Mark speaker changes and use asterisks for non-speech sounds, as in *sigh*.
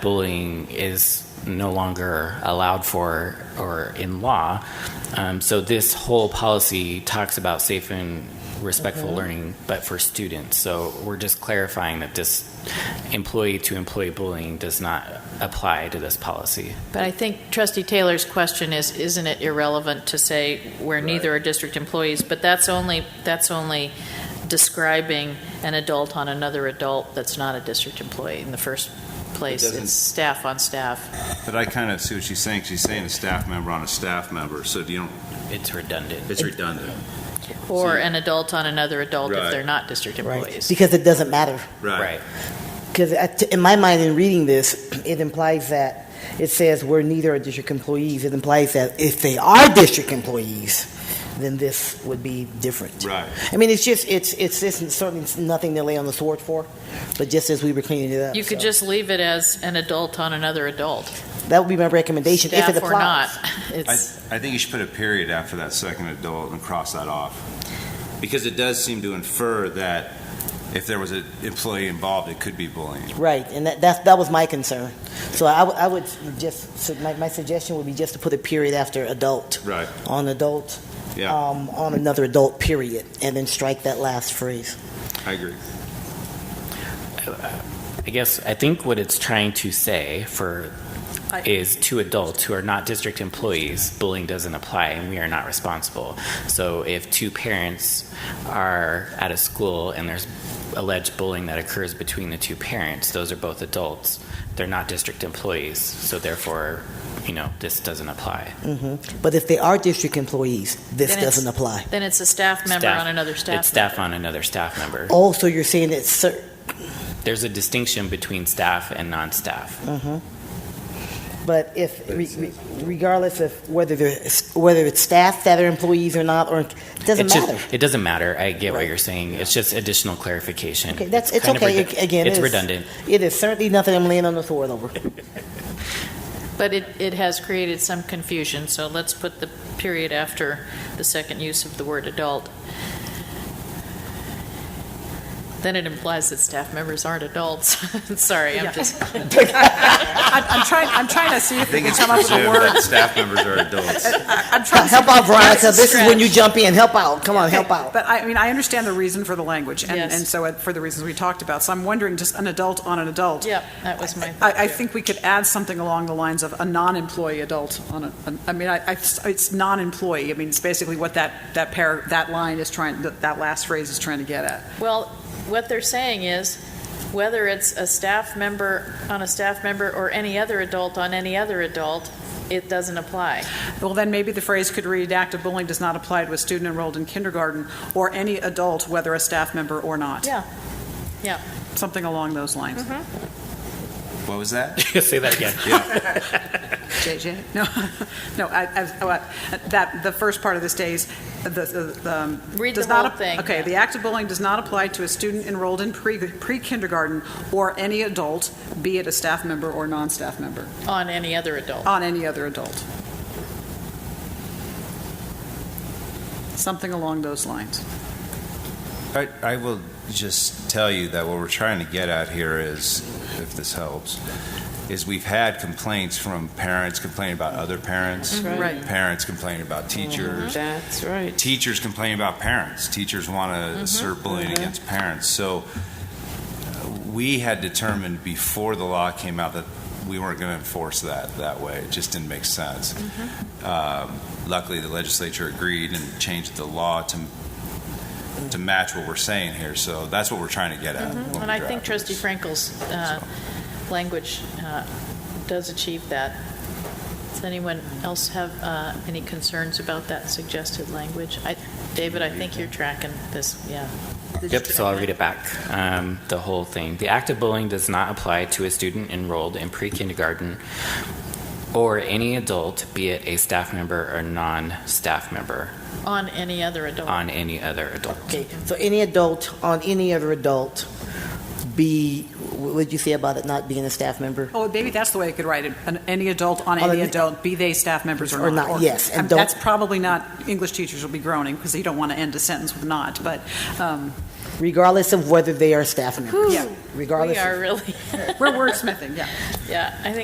Speaker 1: bullying is no longer allowed for or in law. Um, so this whole policy talks about safe and respectful learning, but for students. So we're just clarifying that this employee to employee bullying does not apply to this policy.
Speaker 2: But I think trustee Taylor's question is, isn't it irrelevant to say where neither are district employees? But that's only, that's only describing an adult on another adult that's not a district employee in the first place.
Speaker 3: It doesn't-
Speaker 2: It's staff on staff.
Speaker 3: But I kind of see what she's saying. She's saying a staff member on a staff member, so you don't,
Speaker 1: It's redundant.
Speaker 3: it's redundant.
Speaker 2: Or
Speaker 3: See.
Speaker 2: an adult on another adult if
Speaker 3: Right.
Speaker 2: they're not district
Speaker 4: Right,
Speaker 2: employees.
Speaker 4: because it doesn't matter.
Speaker 1: Right.
Speaker 4: Because in my mind, in reading this, it implies that, it says we're neither are district employees. It implies that if they are district employees, then this would be different.
Speaker 3: Right.
Speaker 4: I mean, it's just, it's, it's just certainly nothing to lay on the sword for, but just as we were cleaning it up.
Speaker 2: You could
Speaker 4: so.
Speaker 2: just leave it as an adult on another adult,
Speaker 4: That would be my recommendation, if it
Speaker 2: staff or not. *laughs*
Speaker 4: applies.
Speaker 3: I,
Speaker 2: It's,
Speaker 3: I think you should put a period after that second adult and cross that off. Because it does seem to infer that if there was an employee involved, it could be bullying.
Speaker 4: Right, and that, that's, that was my concern. So I, would- I would just, so my, my suggestion would be just to put a period after adult,
Speaker 3: Right.
Speaker 4: on adult,
Speaker 5: Uh,
Speaker 3: Yeah,
Speaker 4: um, on another adult period, and then strike that last phrase.
Speaker 3: I agree.
Speaker 1: I guess I think what it's trying to say for
Speaker 2: I-
Speaker 1: is to adults who are not district employees, bullying doesn't apply and we are not responsible. So if two parents are at a school and there's alleged bullying that occurs between the two parents, those are both adults. They're not district employees, so therefore, you know, this doesn't apply.
Speaker 4: hmm But if they are district employees, this
Speaker 2: Then it's-
Speaker 4: doesn't apply.
Speaker 2: then it's a staff member
Speaker 1: Staff-
Speaker 2: on another staff.
Speaker 1: It's staff on another staff member.
Speaker 4: Oh, so you're saying it's cer-
Speaker 1: There's a distinction between staff and non-staff.
Speaker 4: mhm. But if, re- re- regardless of whether they're, whether it's staff that are employees or not, or, it doesn't
Speaker 1: It's just-
Speaker 4: matter.
Speaker 1: it doesn't matter. I get what
Speaker 4: Right.
Speaker 1: you're saying. It's just additional clarification.
Speaker 4: Okay, that's, it's
Speaker 1: kind of
Speaker 4: okay,
Speaker 1: redu-
Speaker 4: again.
Speaker 1: It's
Speaker 4: it
Speaker 1: *laughs*
Speaker 4: is-
Speaker 1: redundant.
Speaker 4: It is certainly nothing I'm laying on the sword over.
Speaker 2: But it, it has created some confusion, so let's put the period after the second use of the word adult. Then it implies that staff members aren't adults. *laughs* Sorry, I'm
Speaker 5: Yeah.
Speaker 2: just,
Speaker 5: I'm, I'm trying. I'm trying to see if
Speaker 3: I
Speaker 5: we
Speaker 3: think
Speaker 5: can
Speaker 3: it's
Speaker 5: come up with a
Speaker 3: presumed
Speaker 5: word.
Speaker 3: that staff members are adults.
Speaker 5: *laughs* I- I'm trying. to
Speaker 4: Help out, Veronica, this is when you
Speaker 2: Stretch.
Speaker 4: jump in, help out, come on, help
Speaker 5: Okay,
Speaker 4: out.
Speaker 5: But I, I mean, I understand the reason for the language, and,
Speaker 2: Yes.
Speaker 5: and so it- for the reasons we talked about. So I'm wondering, just an adult on an adult.
Speaker 2: yep, that was my thought.
Speaker 5: I, I
Speaker 2: too.
Speaker 5: think we could add something along the lines of a non-employee adult on a. an- I mean, I, I, it's non-employee. I mean, it's basically what that that pair that line is trying. That, that last phrase is trying to get at.
Speaker 2: Well, what they're saying is, whether it's a staff member on a staff member or any other adult on any other adult, it doesn't apply.
Speaker 5: Well, then maybe the phrase could read: "Active bullying does not apply to a student enrolled in kindergarten or any adult, whether a staff member or not."
Speaker 2: Yeah, yeah.
Speaker 5: Something along those lines.
Speaker 3: What was that?
Speaker 1: Say that again.
Speaker 5: JJ? No, *laughs* no, I, I, oh, I- that, the first part of this stays, the, the, the, um,
Speaker 2: Read
Speaker 5: does
Speaker 2: the whole
Speaker 5: not ap-
Speaker 2: thing,
Speaker 5: Okay,
Speaker 2: yeah.
Speaker 5: the act of bullying does not apply to a student enrolled in pre, pre-kindergarten or any adult, be it a staff member or non-staff member,
Speaker 2: On any other adult.
Speaker 5: on any other adult. Something along those lines.
Speaker 3: I, I will just tell you that what we're trying to get at here is, if this helps, is we've had complaints from parents complaining about other parents.
Speaker 2: Mm-hmm.
Speaker 5: Right.
Speaker 3: Parents complaining about teachers.
Speaker 6: That's right.
Speaker 3: Teachers complain about parents. Teachers want to
Speaker 2: Mm-hmm.
Speaker 3: assert bullying against parents. So uh, we had determined before the law came out that we weren't going to enforce that that way. It just didn't make sense.
Speaker 2: Mm-hmm.
Speaker 3: Um, luckily, the legislature agreed and changed the law to to match what we're saying here. So that's what we're trying to get at. when we
Speaker 2: Mm-hmm. And I think
Speaker 3: draft
Speaker 2: trustee
Speaker 3: this.
Speaker 2: Frankel's uh, language uh, does achieve that. Does anyone else have uh, any concerns about that suggested language? I- David, I think you're tracking this, yeah.
Speaker 1: *laughs* Yep, so I'll read it back, um, the whole thing. The act of bullying does not apply to a student enrolled in pre-kindergarten or any adult, be it a staff member or non-staff member,
Speaker 2: On any other adult.
Speaker 1: on any other adult.
Speaker 4: Okay, so any adult on any other adult be, what would you say about it not being a staff member?
Speaker 5: Oh, maybe that's the way I could write it, An- any adult on
Speaker 4: On
Speaker 5: any
Speaker 4: an-
Speaker 5: adult, be they staff members or not.
Speaker 4: Or not, yes, and
Speaker 5: Um,
Speaker 4: don't-
Speaker 5: That's probably not, English teachers will be groaning, because you don't want to end a sentence with not, but, um,
Speaker 4: regardless of whether they are staff members.
Speaker 5: Yeah.
Speaker 4: Regardless
Speaker 2: We
Speaker 4: of-
Speaker 2: are really,
Speaker 5: We're wordsmithing, yeah.
Speaker 2: yeah, I think